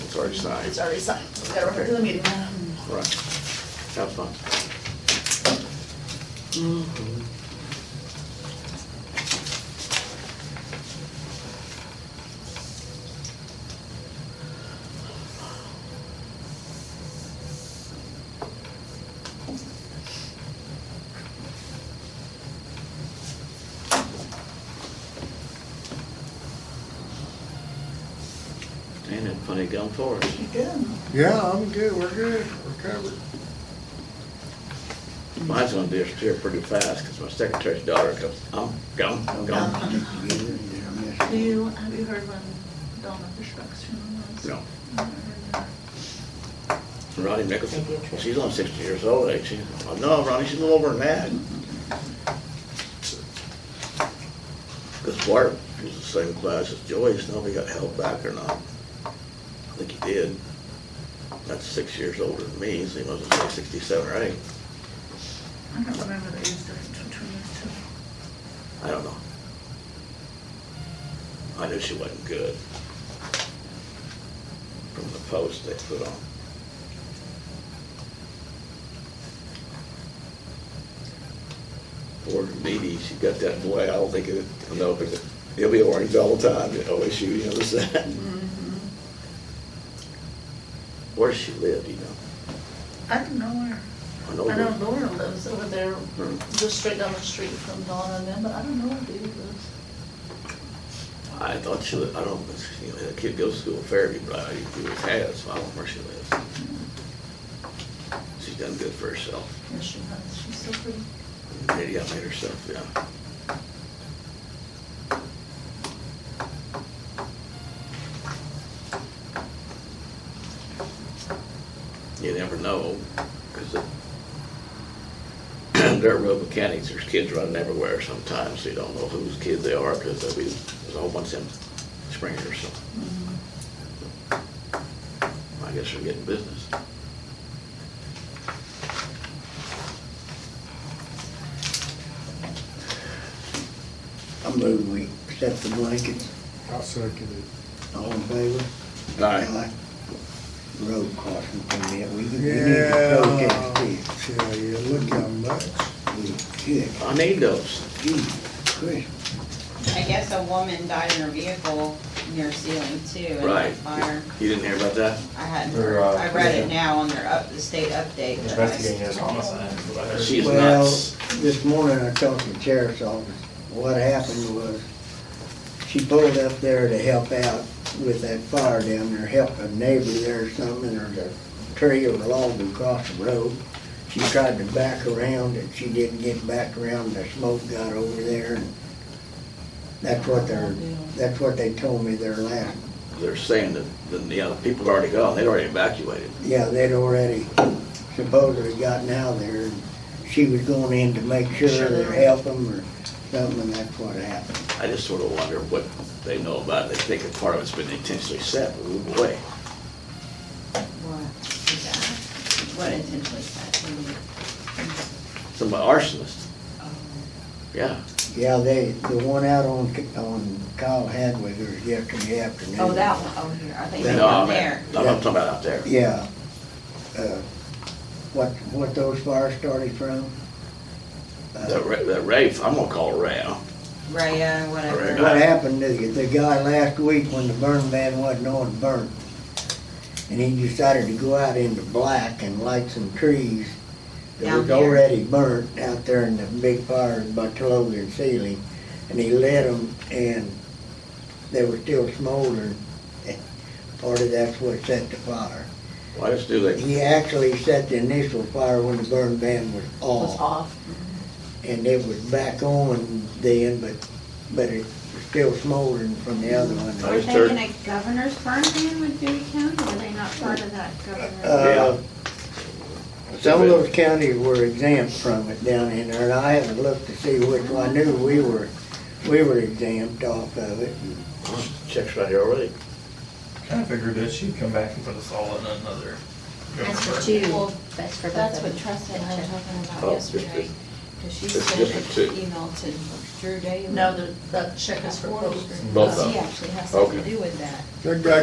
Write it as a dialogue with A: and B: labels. A: It's already signed,
B: It's already signed, so we gotta refer to the meeting.
A: right. Have fun.
C: Ain't it funny going for us?
B: You good?
D: Yeah, I'm good, we're good, we're covered.
C: Mine's gonna disappear pretty fast, because my secretary's daughter goes, I'm gone,
B: Uh-huh.
C: I'm gone.
B: Do you, have you heard when Donna Fishback's funeral was?
C: No,
B: I haven't heard that.
C: Ronnie Nicholson, she's only sixty years old, ain't she? Oh, No, Ronnie, she's a little over than that. Because Bart was the same class as Joyce, now we got held back or not. I think he did. That's six years older than me, so he must have been sixty-seven or eight.
B: I don't remember the age difference between us two.
C: I don't know. I knew she wasn't good. From the post they put on. Poor Dee she got that boy, I don't think it, I know, but he'll be orange all the time, at OSU, you know, this, that.
B: Mm-hmm.
C: Where does she live, do you know?
B: I don't know where.
C: I
B: I
C: know,
B: know
C: where-
B: Laura lives over there,
C: Hmm.
B: just straight down the street from Donna and them, but I don't know where Dee lives.
C: I thought she, lived- I don't, you know, that kid goes to school in Fairview, but I, he was had, so I don't know where she lives. She's done good for herself.
B: Yes, she has, she's so pretty.
C: Maybe I made herself, yeah. You never know, because they're road mechanics, there's kids running everywhere sometimes, so you don't know whose kid they are, because there'll be, there's a whole bunch of them springers, so.
B: Mm-hmm.
C: I guess they're getting business.
E: I move we accept the blankets,
D: I'll second it.
E: all in favor?
C: All
E: Aye. Road crossing permit, we we need
D: Yeah.
E: to protest this.
D: Tell you, look how much.
E: We, good,
C: I need those.
E: Jesus Christ.
F: I guess a woman died in her vehicle near Sealing too in
C: Right.
F: that fire.
C: You didn't hear about that?
F: I hadn't,
G: They're, uh,
F: I read it now on their up, the state update. but I-
G: Investigating this homicide. is what I heard.
C: She is
E: Well,
C: nuts.
E: this morning I talked to the sheriff's office. What happened was, she pulled up there to help out with that fire down there, help a neighbor there or something, and there's a tree or a log across the road. She tried to back around, and she didn't get back around, the smoke got over there, and that's what they're, that's what they told me their last,
C: They're saying that, the you know, the people are already gone, they'd already evacuated.
E: yeah, they'd already supposedly gotten out there, and she was going in to make sure or help them or something, and that's what happened.
C: I just sort of wonder what they know about it. They think a part of it's been intentionally set, but move away.
F: What is that? What intentionally is that? What do you-
C: Some arsonist,
F: oh,
C: yeah.
E: Yeah, they, the one out on, on Kyle Hadwig was yesterday afternoon.
F: Oh, that one, oh, here, I think
E: Yeah.
F: it's
C: No, I
F: down
C: mean,
F: there.
C: I'm not talking about out there.
E: Yeah. Uh, What, what those fires started from? Uh,
C: The, Ra- the Rafe, I'm gonna call Ray.
F: Raya, whatever.
C: Raya.
E: What happened to the, the guy last week when the burn ban wasn't on burnt? And he decided to go out into black and light some trees that was
F: Down here.
E: already burnt out there in the big fire by Logan Ceiling. And he lit them and they were still smoldering. Part of that's what set the fire.
C: Why just do they,
E: He actually set the initial fire when the burn ban was
B: Was off.
E: and it was back on then, but, but it was still smoldering from the other
C: I
E: one.
H: Were
C: just
H: they
C: heard-
H: in a governor's burn ban with Dewey County, were they not part of that governor?
E: Uh, Some of those counties were exempt from it down in there, and I haven't looked to see which, one. I knew we were, we were exempt off of it.
C: Oh, checks right here already.
G: Kinda figured that she'd come back and put us all in another.
H: That's what you, that's for
F: That's what
H: Trust
F: Tressa and I were talking
C: Oh,
F: about
C: it's
F: yesterday,
C: just-
F: because she
C: it's
F: sent
C: different
F: an
C: too.
F: email to Drew Daly.
B: No, the, that check is for closure.
C: Both of them.
F: She actually has something to
C: Okay.
F: do with that.
D: That guy